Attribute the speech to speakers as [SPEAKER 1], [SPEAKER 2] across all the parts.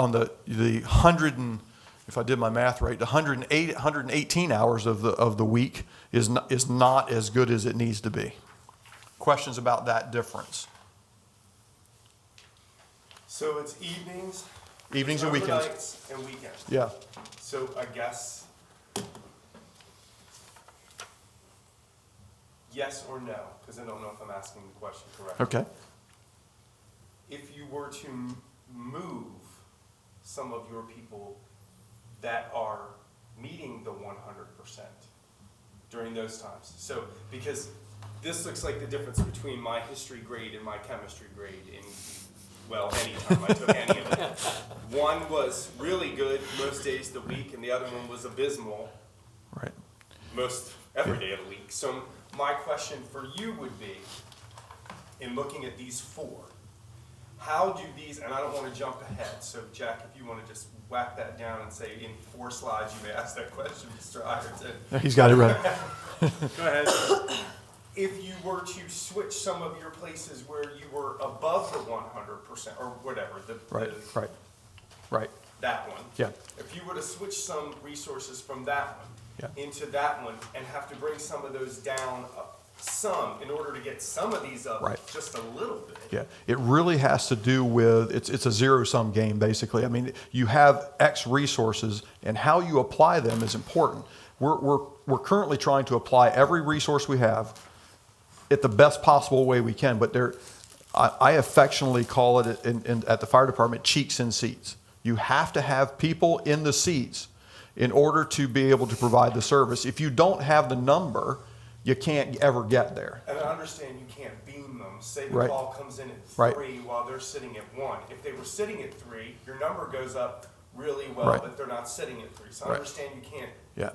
[SPEAKER 1] on the, the hundred and, if I did my math right, the hundred and eight, hundred and eighteen hours of the, of the week is not, is not as good as it needs to be. Questions about that difference?
[SPEAKER 2] So it's evenings.
[SPEAKER 1] Evenings and weekends.
[SPEAKER 2] overnights, And weekends.
[SPEAKER 1] Yeah,
[SPEAKER 2] So I guess. Yes or no, because I don't know if I'm asking the question correctly.
[SPEAKER 1] okay.
[SPEAKER 2] If you were to m- move some of your people that are meeting the one hundred percent during those times. So, because this looks like the difference between my history grade and my chemistry grade in, well, any time I took any of it. One was really good most days of the week, and the other one was abysmal
[SPEAKER 1] Right.
[SPEAKER 2] most every day of the week. So my question for you would be, in looking at these four, how do these, and I don't want to jump ahead, so Jack, if you want to just whack that down and say in four slides, you may ask that question, Mr. Iverson.
[SPEAKER 1] He's got it right.
[SPEAKER 2] Go ahead. If you were to switch some of your places where you were above the one hundred percent, or whatever, the,
[SPEAKER 1] Right,
[SPEAKER 2] the-
[SPEAKER 1] right, right.
[SPEAKER 2] that one.
[SPEAKER 1] Yeah.
[SPEAKER 2] If you were to switch some resources from that one
[SPEAKER 1] Yeah.
[SPEAKER 2] into that one and have to bring some of those down up some in order to get some of these up
[SPEAKER 1] Right.
[SPEAKER 2] just a little bit.
[SPEAKER 1] Yeah, it really has to do with it's it's a zero sum game basically. I mean, you have X resources, and how you apply them is important. We're we're we're currently trying to apply every resource we have at the best possible way we can, but there, I, I affectionately call it in, in, at the fire department cheeks in seats. You have to have people in the seats in order to be able to provide the service. If you don't have the number, you can't ever get there.
[SPEAKER 2] And I understand you can't beam them. Say the
[SPEAKER 1] Right.
[SPEAKER 2] call comes in at
[SPEAKER 1] Right.
[SPEAKER 2] three while they're sitting at one. If they were sitting at three, your number goes up really well,
[SPEAKER 1] Right.
[SPEAKER 2] but they're not sitting at three. So I
[SPEAKER 1] Right.
[SPEAKER 2] understand you can't
[SPEAKER 1] Yeah.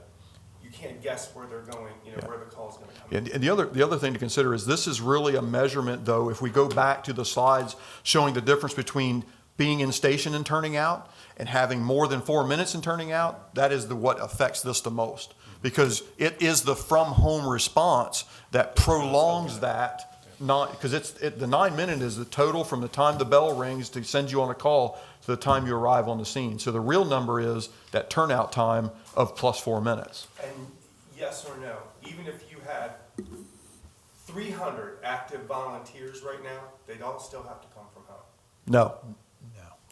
[SPEAKER 2] you can't guess where they're going, you know, where the call's gonna come in.
[SPEAKER 1] And, and the other, the other thing to consider is this is really a measurement, though, if we go back to the slides showing the difference between being in station and turning out and having more than four minutes and turning out, that is the, what affects this the most. Because it is the from-home response that prolongs that, not, because it's, it, the nine minute is the total from the time the bell rings to send you on a call to the time you arrive on the scene. So the real number is that turnout time of plus four minutes.
[SPEAKER 2] And yes or no, even if you had three hundred active volunteers right now, they'd all still have to come from home.
[SPEAKER 1] No,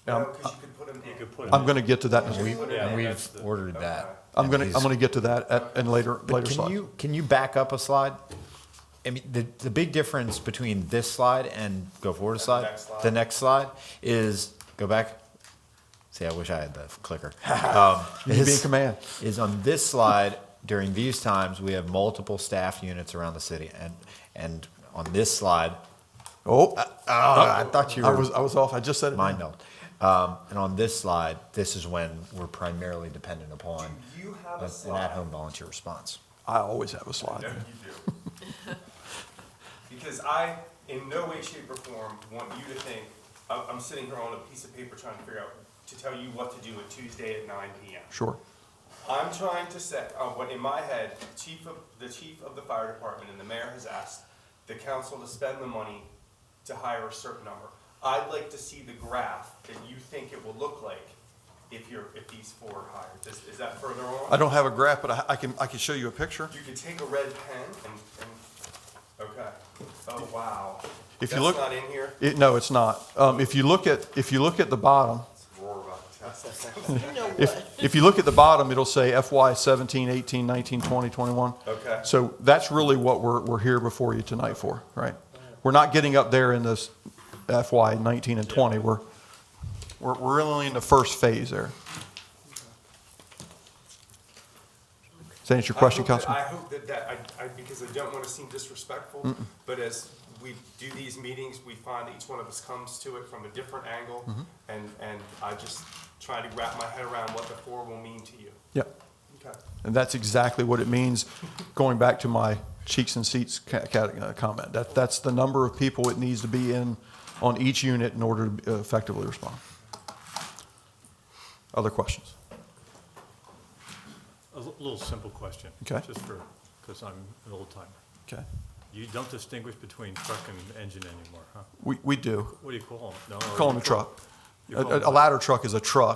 [SPEAKER 1] Um,
[SPEAKER 2] No, because you could put them in.
[SPEAKER 1] I'm going to get to that in a
[SPEAKER 2] We-
[SPEAKER 1] week.
[SPEAKER 2] Yeah,
[SPEAKER 3] We've ordered
[SPEAKER 2] Okay.
[SPEAKER 3] that.
[SPEAKER 1] I'm
[SPEAKER 3] And
[SPEAKER 1] gonna,
[SPEAKER 3] he's-
[SPEAKER 1] I'm gonna get to that at, in later,
[SPEAKER 3] But
[SPEAKER 1] later
[SPEAKER 3] can
[SPEAKER 1] slides.
[SPEAKER 3] you can you back up a slide? I mean, the, the big difference between this slide and go forward a
[SPEAKER 2] the
[SPEAKER 3] slide,
[SPEAKER 2] next slide.
[SPEAKER 3] the next slide is go back. See, I wish I had the clicker. Um,
[SPEAKER 1] You need to be in
[SPEAKER 3] is-
[SPEAKER 1] command.
[SPEAKER 3] Is on this slide during these times we have multiple staff units around the city, and and on this slide,
[SPEAKER 1] Oh,
[SPEAKER 3] oh, I thought you were
[SPEAKER 1] I was, I was off, I just said it.
[SPEAKER 3] mind meld. Um, and on this slide, this is when we're primarily dependent upon
[SPEAKER 2] Do you have a
[SPEAKER 3] an
[SPEAKER 2] slide?
[SPEAKER 3] at-home volunteer response.
[SPEAKER 1] I always have a slide.
[SPEAKER 2] No, you do. Because I, in no way, shape, or form, want you to think, I'm, I'm sitting here on a piece of paper trying to figure out, to tell you what to do on Tuesday at nine PM.
[SPEAKER 1] Sure.
[SPEAKER 2] I'm trying to set, uh, what in my head, chief of, the chief of the fire department and the mayor has asked the council to spend the money to hire a certain number. I'd like to see the graph that you think it will look like if you're, if these four are hired. Is, is that further on?
[SPEAKER 1] I don't have a graph, but I, I can, I can show you a picture.
[SPEAKER 2] You could take a red pen and, and, okay. Oh, wow.
[SPEAKER 1] If you look-
[SPEAKER 2] That's not in here?
[SPEAKER 1] It, no, it's not. Um, if you look at, if you look at the bottom,
[SPEAKER 2] It's Rohrbach test.
[SPEAKER 4] You know what?
[SPEAKER 1] if, if you look at the bottom, it'll say FY 17, 18, 19, 20, 21.
[SPEAKER 2] Okay.
[SPEAKER 1] So that's really what we're, we're here before you tonight for, right? We're not getting up there in this FY 19 and 20. We're, we're, we're only in the first phase there. Does that answer your question,
[SPEAKER 2] I hope that-
[SPEAKER 1] Councilman?
[SPEAKER 2] I hope that that, I, I, because I don't wanna seem disrespectful, but as we do these meetings, we find each one of us comes to it from a different angle.
[SPEAKER 1] Mm-hmm.
[SPEAKER 2] And, and I just try to wrap my head around what the four will mean to you.
[SPEAKER 1] Yep.
[SPEAKER 2] Okay.
[SPEAKER 1] And that's exactly what it means, going back to my cheeks and seats ca- ca- uh, comment. That, that's the number of people it needs to be in on each unit in order to uh, effectively respond. Other questions?
[SPEAKER 5] A l- little simple question.
[SPEAKER 1] Okay.
[SPEAKER 5] Just for, because I'm an old timer.
[SPEAKER 1] Okay.
[SPEAKER 5] You don't distinguish between truck and engine anymore, huh?
[SPEAKER 1] We, we do.
[SPEAKER 5] What do you call them?
[SPEAKER 1] Call them a truck. A- A, a ladder truck is a truck.